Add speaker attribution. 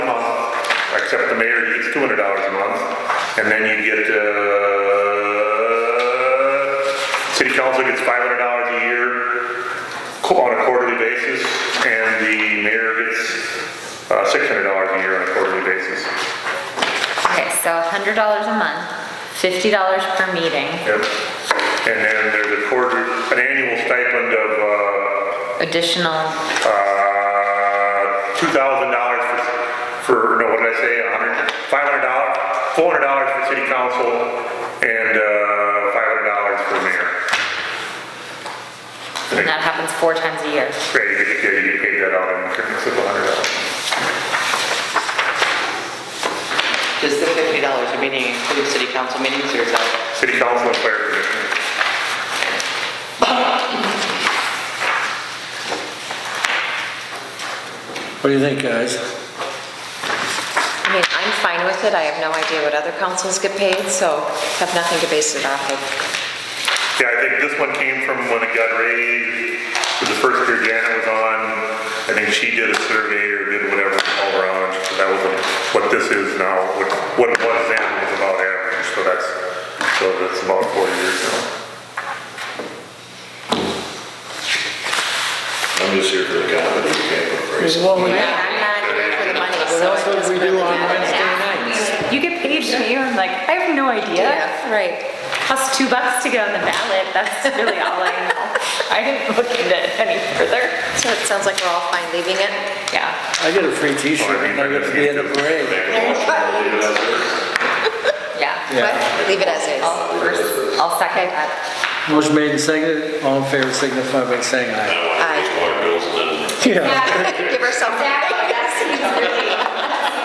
Speaker 1: except the mayor gets two hundred dollars a month, and then you get, uh, city council gets five hundred dollars a year co- on a quarterly basis, and the mayor gets, uh, six hundred dollars a year on a quarterly basis.
Speaker 2: Okay, so hundred dollars a month, fifty dollars per meeting,
Speaker 1: Yep. And then there's a quarter, an annual stipend of, uh,
Speaker 2: additional,
Speaker 1: uh, two thousand dollars for, for, no, what did I say, a hundred, five hundred dollars, four hundred dollars for city council, and, uh, five hundred dollars for mayor.
Speaker 2: and that happens four times a year.
Speaker 1: Right, you get, yeah, you get paid that out in increments of a hundred dollars.
Speaker 3: Does the fifty dollars a meeting include city council meetings or is that?
Speaker 1: City council and fire commission.
Speaker 4: What do you think, guys?
Speaker 5: I mean, I'm fine with it, I have no idea what other councils get paid, so have nothing to base it off of.
Speaker 1: Yeah, I think this one came from when it got raised, with the first year Janet was on, I think she did a survey or did whatever all around, so that was what this is now, what, what it was then was about average, so that's, so that's about four years now.
Speaker 6: I'm just here for the comedy, you can't put praise.
Speaker 5: I'm not here for the money, so.
Speaker 4: That's what we
Speaker 5: it doesn't
Speaker 4: do
Speaker 5: really
Speaker 4: on
Speaker 5: matter.
Speaker 4: Wednesday nights.
Speaker 2: You get paid to me, I'm like, I have no idea.
Speaker 5: Yeah, right.
Speaker 2: Plus two bucks to get on the ballot, that's really all I know. I didn't look into it any further.
Speaker 5: So it sounds like we're all fine leaving it.
Speaker 2: Yeah,
Speaker 4: I get a free t-shirt and I get to be in a parade.
Speaker 6: Make a motion, we'll leave it as is.
Speaker 2: yeah.
Speaker 4: Yeah.
Speaker 5: What? Leave it as is.
Speaker 2: I'll first- I'll second that.
Speaker 4: Motion made and seconded, all in favor signify by saying aye.
Speaker 6: I want to raise water bills and then
Speaker 4: Yeah.
Speaker 5: Give her something.